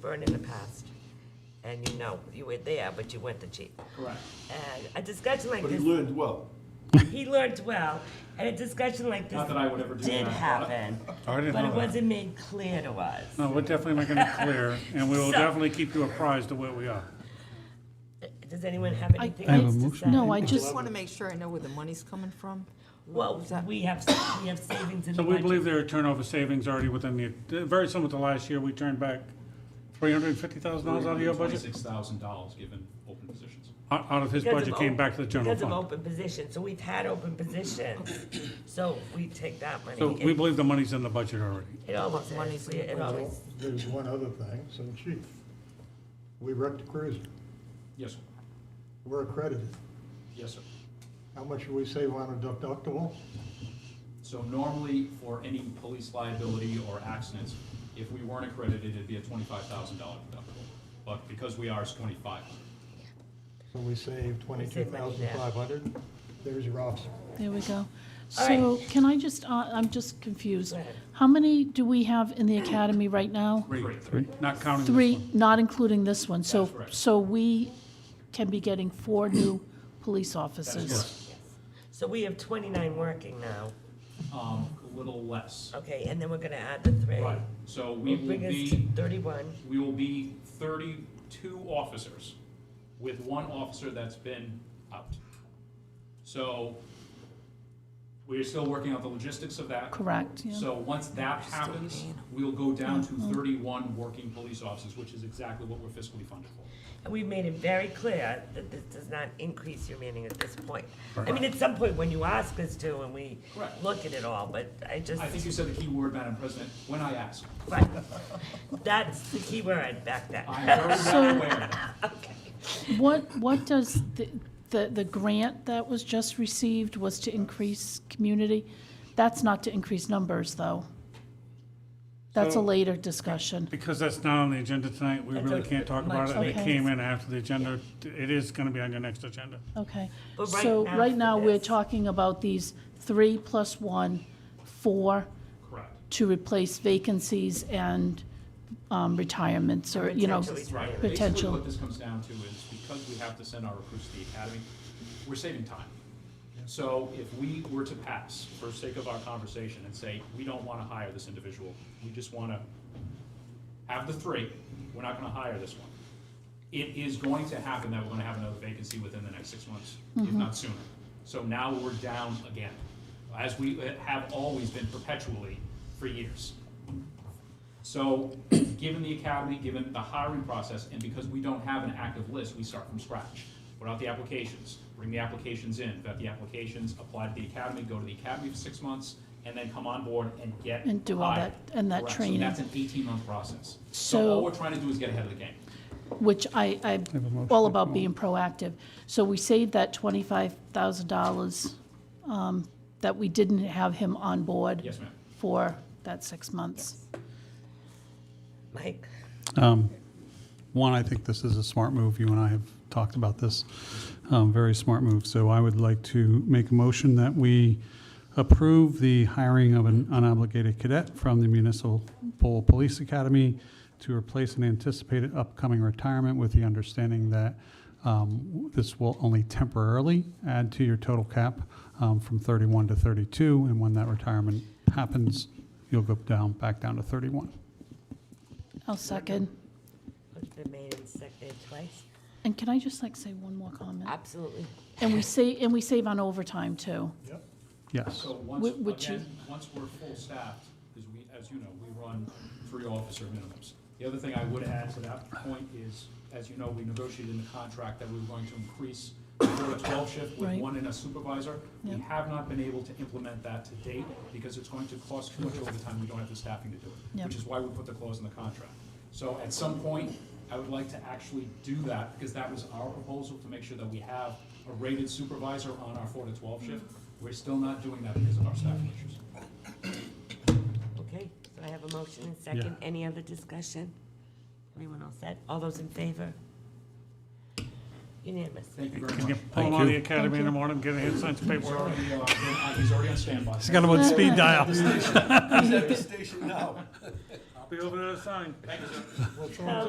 burned in the past. And you know, you were there, but you went to chief. Correct. And a discussion like But he this, learned well. he learned well, and a discussion like this Not that I would ever do did that. happen, I didn't but it know that. wasn't made clear to us. No, we're definitely making it clear, and we will So- definitely keep you apprised of where we are. Does anyone have anything I have a else to say? motion. No, I Oh, I just just, want to make sure I know where the money's coming from. Well, Is that- we have, we have savings in the So we believe budget. there are turnover savings already within the, very similar to last year, we turned back three hundred and fifty thousand dollars out of your budget? Twenty-six thousand dollars given open positions. Out out of his Because of budget came op- back to the general Because of fund. open positions, so we've had open positions, so we take that money. So It- we believe the money's in the budget already. It always is, Money's in the it budget. always, There's one other thing, so chief, we wrecked a cruiser, Yes, sir. we're accredited. Yes, sir. How much do we save on a deductible? So normally, for any police liability or accidents, if we weren't accredited, it'd be a twenty-five thousand dollar deductible. But because we are, it's twenty-five. So we save twenty-two thousand five hundred, there's your officer. there we go. All right. So can I just, uh, I'm just confused. Go ahead. How many do we have in the academy right now? Three, not counting this Three, one. not including this one. So, That's correct. so we can be getting four new police officers. so we have twenty-nine working now, Um, a little less. okay, and then we're gonna add the three. Right. So we will Bring us be. to thirty-one, We will be thirty-two officers, with one officer that's been out. So, we are still working out the logistics of that. Correct, yeah. Mm-hmm. So once that happens, we'll go down to thirty-one working police officers, which is exactly what we're fiscally funded for. and we've made it very clear that this does not increase your meaning at this point. I mean, at some point when you ask us to and we Correct. look at it all, but I just, I think you said the key word, Madam President, when I ask. right, that's the key word back then. I'm very So- well aware. Okay. What, what does, the, the, the grant that was just received was to increase community? That's not to increase numbers, though. That's a So- later discussion. Because that's not on the agenda tonight, we That's really okay. can't talk about it, and it Okay. came in after the agenda. It is gonna be on your next agenda. Okay, But right so now for right now, we're this- talking about these three plus one, four Correct. to replace vacancies and um, retirements, or, you know, Potentially. Right. Basically, Potential. what this comes down to is because we have to send our recruits to the academy, we're saving time. So if we were to pass, for sake of our conversation, and say, we don't want to hire this individual, we just want to have the three, we're not going to hire this one. It is going to happen that we're going to have another vacancy within the next six months, Mm-hmm. if not sooner. So now we're down again, as we have always been perpetually for years. So, given the academy, given the hiring process, and because we don't have an active list, we start from scratch. Put out the applications, bring the applications in, vet the applications, apply to the academy, go to the academy for six months, and then come on board and get And do all hired. that- and that Correct. training. So that's an eighteen-month process. So all So- we're trying to do is get ahead of the game. which I, I'm all about being proactive. So we saved that twenty-five thousand dollars um, that we didn't have him on board. Yes, ma'am. For that six months. Mike? One, I think this is a smart move. You and I have talked about this. Um, Very smart move. So I would like to make a motion that we approve the hiring of an unobligated cadet from the Municipal Police Academy to replace an anticipated upcoming retirement with the understanding that um, this will only temporarily add to your total cap um, from 31 to 32. And when that retirement happens, you'll go down, back down to 31. I'll second. It's been made and seconded twice. And can I just like say one more comment? Absolutely. And we say, and we save on overtime too. Yep. Yes. So once, Wh- which again, is- once we're full staffed, because we, as you know, we run three officer minimums. The other thing I would add to that point is, as you know, we negotiated in the contract that we were going to increase the four to twelve shift with Right. one and a supervisor. We Yeah. have not been able to implement that to date because it's going to cost too much overtime. We don't have the staffing to do it, Yeah. which is why we put the clause in the contract. So at some point, I would like to actually do that because that was our proposal to make sure that we have a rated supervisor on our four to twelve Mm-hmm. shift. We're still not doing that because of our staffing issues. Okay, so I have a motion and second. Any other discussion? Everyone all set? All those in favor? Unanimous. Thank you very Can you much. pull him out of the academy in the morning, get a hand sign some He's paperwork? already, uh, he's already on standby. He's got him on speed dial. He's at the station now. I'll be over there to sign. Well, it's all- Now,